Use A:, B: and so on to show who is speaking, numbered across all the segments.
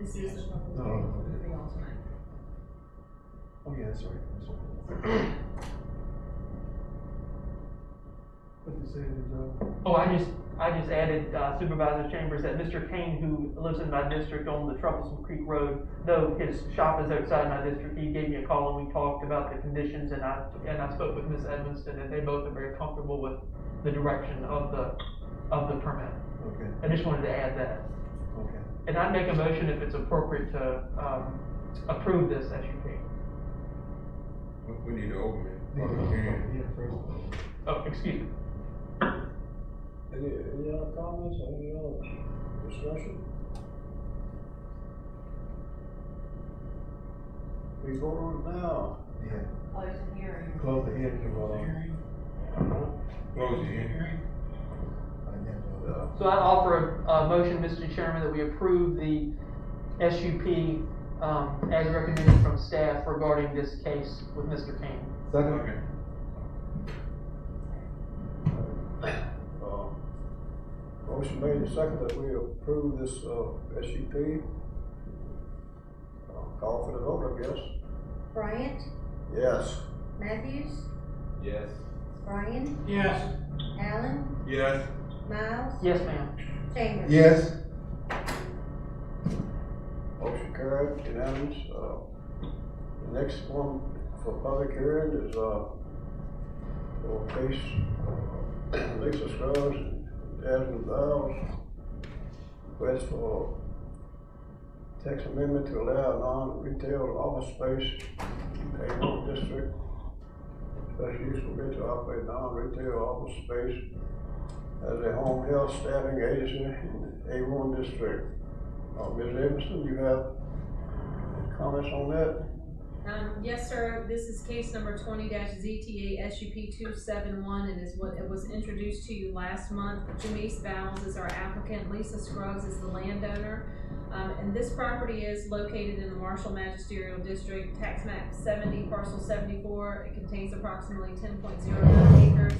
A: This is the public
B: Oh.
A: hearing for the alternate.
B: Oh, yeah, that's right, that's right.
C: What you say, Joe?
D: Oh, I just, I just added uh, Supervisor Chambers that Mr. Kane, who lives in my district on the Troublesome Creek Road, though his shop is outside my district, he gave me a call and we talked about the conditions and I, and I spoke with Ms. Edmiston and they both are very comfortable with the direction of the, of the permit.
B: Okay,
D: I just wanted to add that.
B: okay.
D: And I'd make a motion if it's appropriate to, um, approve this SUP.
E: We, we need to open it, public hearing.
B: Yeah, first.
D: Oh, excuse me.
F: Any, any other comments, any other discussion? We vote on it now.
B: Yeah,
A: Close the hearing.
B: close the hearing of, uh,
E: Close the hearing.
B: financial, uh,
D: So I offer a, a motion, Mr. Chairman, that we approve the SUP, um, as recommended from staff regarding this case with Mr. Kane.
B: second,
E: Okay.
F: Uh, Motion made and seconded that we approve this, uh, SUP. Uh, Call for the vote, I guess.
G: Bryant,
F: Yes.
G: Matthews,
H: Yes.
G: Bryan,
C: Yes.
G: Allen,
E: Yes,
G: Miles,
D: Yes, ma'am.
G: Chambers.
B: yes,
F: Motion carried, unanimous. Uh, The next one for public hearing is, uh, for case, uh, Lisa Scruggs and Jasmine Biles. Request for text amendment to allow non-retail office space in Hayward District. Special use permit to operate non-retail office space as a home health staffing agency in A one district. Uh, Ms. Emerson, you have comments on that?
A: Um, yes, sir, this is case number twenty ZTA SUP two seven one, and is what, it was introduced to you last month. Janice Bowles is our applicant, Lisa Scruggs is the landowner. Um, and this property is located in the Marshall Magisterial District, tax map seventy, parcel seventy-four. It contains approximately ten point zero nine acres.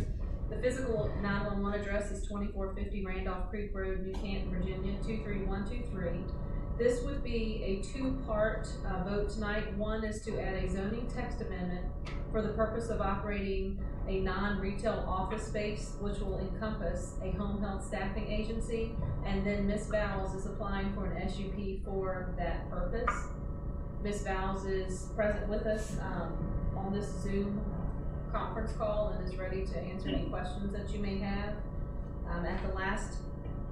A: The physical nine-one-one address is twenty-four fifty Randolph Creek Road, New Canton, Virginia, two-three-one-two-three. This would be a two-part uh, vote tonight. One is to add a zoning text amendment for the purpose of operating a non-retail office space, which will encompass a home health staffing agency. And then Ms. Bowles is applying for an SUP for that purpose. Ms. Bowles is present with us um, on this Zoom conference call and is ready to answer any questions that you may have. Um, At the last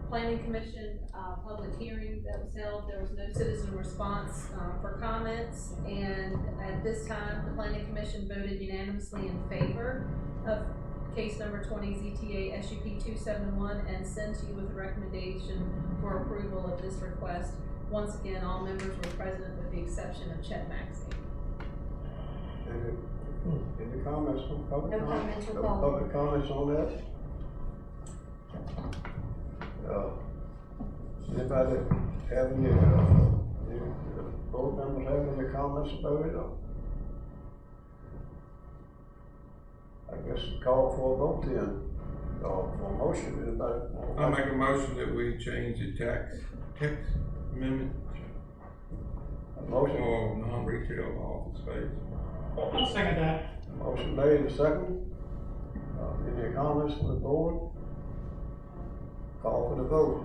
A: planning commission, uh, public hearing that was held, there was no citizen response, uh, for comments. And at this time, the planning commission voted unanimously in favor of case number twenty ZTA SUP two seven one and sent you with a recommendation for approval of this request. Once again, all members were present with the exception of Chet Maxey.
F: Any, any comments on public?
G: No comments
F: No
G: required.
F: Public comments on that? Uh, Anybody have any, uh, any, uh, board members have any comments about it or? I guess call for a vote then, or for a motion, anybody?
E: I make a motion that we change the tax, tax amendment
F: A Motion.
E: for non-retail office space.
C: I'll second that.
F: Motion made and seconded. Uh, Any comments from the board? Call for the vote.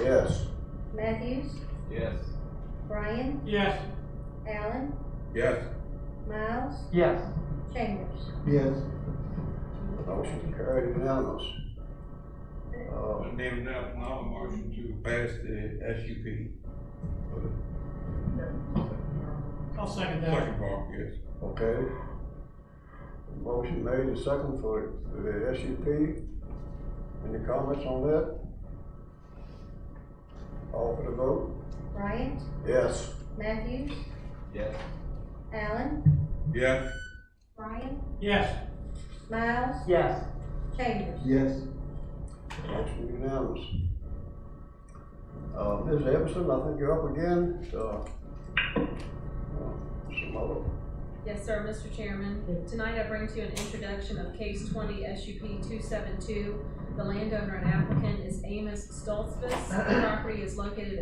F: Yes.
G: Matthews,
H: Yes.
G: Bryan,
C: Yes.
G: Allen,
E: Yes,
G: Miles,
D: Yes.
G: Chambers.
B: yes,
F: Motion carried unanimous. Uh,
E: and then now another motion to pass the SUP,
C: I'll second that.
E: second part, yes.
F: Okay. Motion made and seconded for for the SUP. Any comments on that? Call for the vote.
G: Bryant,
F: Yes.
G: Matthews,
H: Yes.
G: Allen,
E: Yes,
G: Bryan,
C: Yes.
G: Miles,
D: Yes.
G: Chambers.
B: yes.
F: Motion unanimous. Uh, Ms. Emerson, I think you're up again, uh, uh, some other,
A: Yes, sir, Mr. Chairman. Tonight I bring to you an introduction of case twenty SUP two seven two. The landowner and applicant is Amos Stoltzfus. The property is located